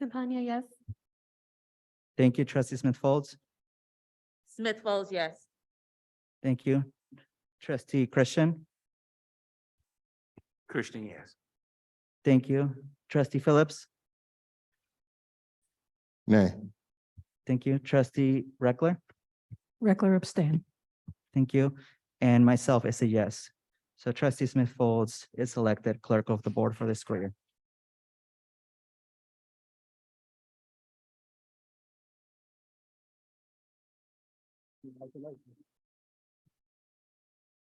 Simpania, Oh. yes. Thank you, trustee Smith Folds. Smith Folds, yes. Thank you. Trustee Christian, Christian, yes. thank you. Trustee Phillips, Nay. thank you. Trustee Reckler, Reckler abstain. thank you. And myself is a yes. So trustee Smith Folds is elected clerk of the board for the school year.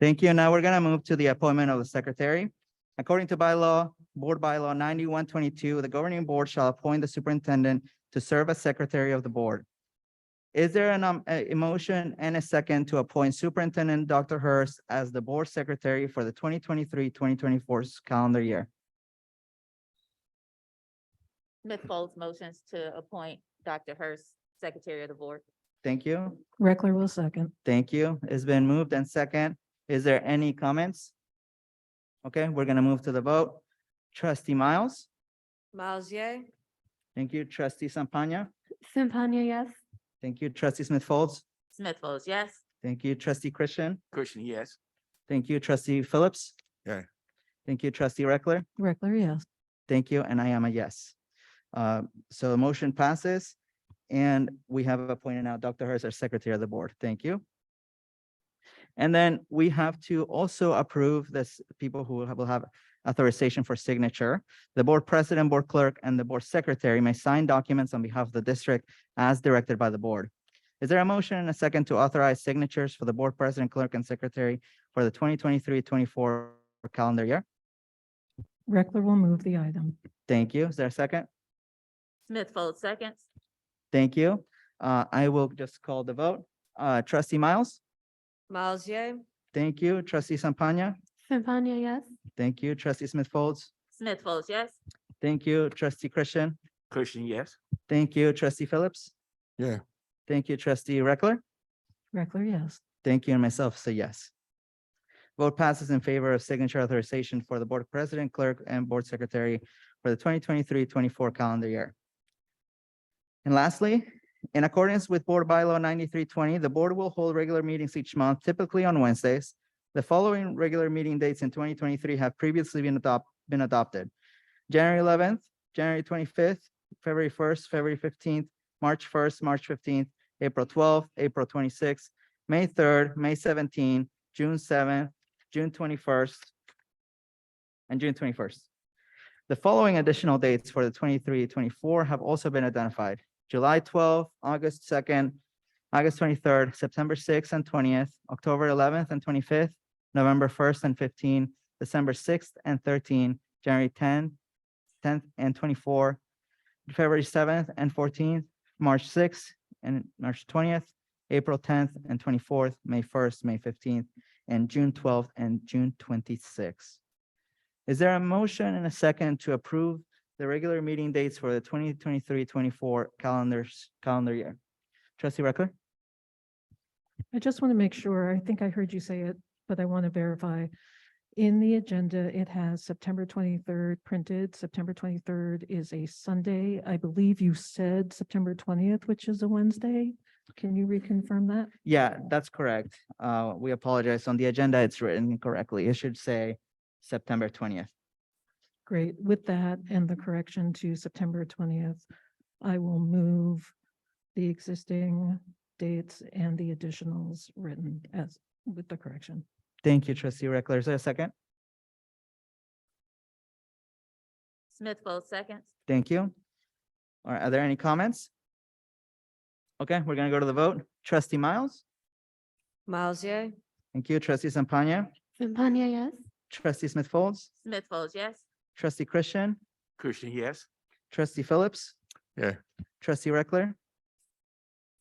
Thank you. Now we're gonna move to the appointment of the secretary. According to bylaw, board bylaw ninety-one twenty-two, the governing board shall appoint the superintendent to serve as secretary of the board. Is there an, um, a a motion and a second to appoint Superintendent Dr. Hurst as the board secretary for the 2023-2024 calendar year? Smith Folds motions to appoint Dr. Hurst, Secretary of the Board. Thank you. Reckler will second. Thank you. It's been moved and second. Is there any comments? Okay, we're gonna move to the vote. Trustee Miles, Miles, yay. thank you. Trustee Sampagna, Simpania, yes. thank you. Trustee Smith Folds, Smith Folds, yes. thank you. Trustee Christian, Christian, yes. thank you. Trustee Phillips. Yay. Thank you. Trustee Reckler. Reckler, yes. Thank you, and I am a yes. Uh, So the motion passes, and we have appointed now Dr. Hurst as Secretary of the Board. Thank you. And then we have to also approve this, people who have- will have authorization for signature. The Board President, Board Clerk, and the Board Secretary may sign documents on behalf of the district as directed by the Board. Is there a motion and a second to authorize signatures for the Board President, Clerk, and Secretary for the 2023-24 calendar year? Reckler will move the item. Thank you. Is there a second? Smith Folds, seconds. Thank you. Uh, I will just call the vote. Uh, trustee Miles, Miles, yay. thank you. Trustee Sampagna, Simpania, yes. thank you. Trustee Smith Folds, Smith Folds, yes. thank you. Trustee Christian, Christian, yes. thank you. Trustee Phillips. Yeah. Thank you, trustee Reckler. Reckler, yes. Thank you, and myself say yes. Vote passes in favor of signature authorization for the board president, clerk, and board secretary for the 2023-24 calendar year. And lastly, in accordance with Board Bylaw ninety-three twenty, the board will hold regular meetings each month, typically on Wednesdays. The following regular meeting dates in twenty twenty-three have previously been adopt, been adopted. January eleventh, January twenty-fifth, February first, February fifteenth, March first, March fifteenth, April twelfth, April twenty-sixth, May third, May seventeenth, June seventh, June twenty-first, and June twenty-first. The following additional dates for the 23-24 have also been identified. July twelfth, August second, August twenty-third, September sixth and twentieth, October eleventh and twenty-fifth, November first and fifteen, December sixth and thirteen, January 10th, 10th and twenty-four, February seventh and fourteenth, March sixth and March twentieth, April tenth and twenty-fourth, May first, May fifteenth, and June twelfth and June twenty-sixth. Is there a motion and a second to approve the regular meeting dates for the 2023-24 calendars, calendar year? Trustee Reckler? I just want to make sure, I think I heard you say it, but I want to verify. In the agenda, it has September twenty-third printed. September twenty-third is a Sunday. I believe you said September twentieth, which is a Wednesday. Can you reconfirm that? Yeah, that's correct. Uh, we apologize. On the agenda, it's written incorrectly. It should say September twentieth. Great. With that and the correction to September twentieth, I will move the existing dates and the additionals written as with the correction. Thank you, trustee Reckler. Is there a second? Smith Folds, seconds. Thank you. All right, are there any comments? Okay, we're gonna go to the vote. Trustee Miles? Miles, yay. Thank you. Trustee Sampagna? Simpania, yes. Trustee Smith Folds? Smith Folds, yes. Trustee Christian? Christian, yes. Trustee Phillips? Yeah. Trustee Reckler?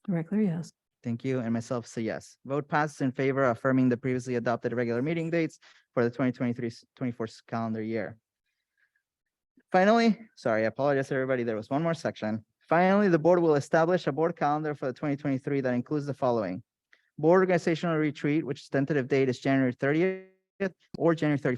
Reckler, yes. Thank you, and myself say yes. Vote passes in favor of affirming the previously adopted regular meeting dates for the 2023-24 calendar year. Finally, sorry, I apologize, to everybody. There was one more section. Finally, the board will establish a board calendar for the twenty twenty-three that includes the following. Board organizational retreat, which tentative date is January thirtieth or January thirty-first.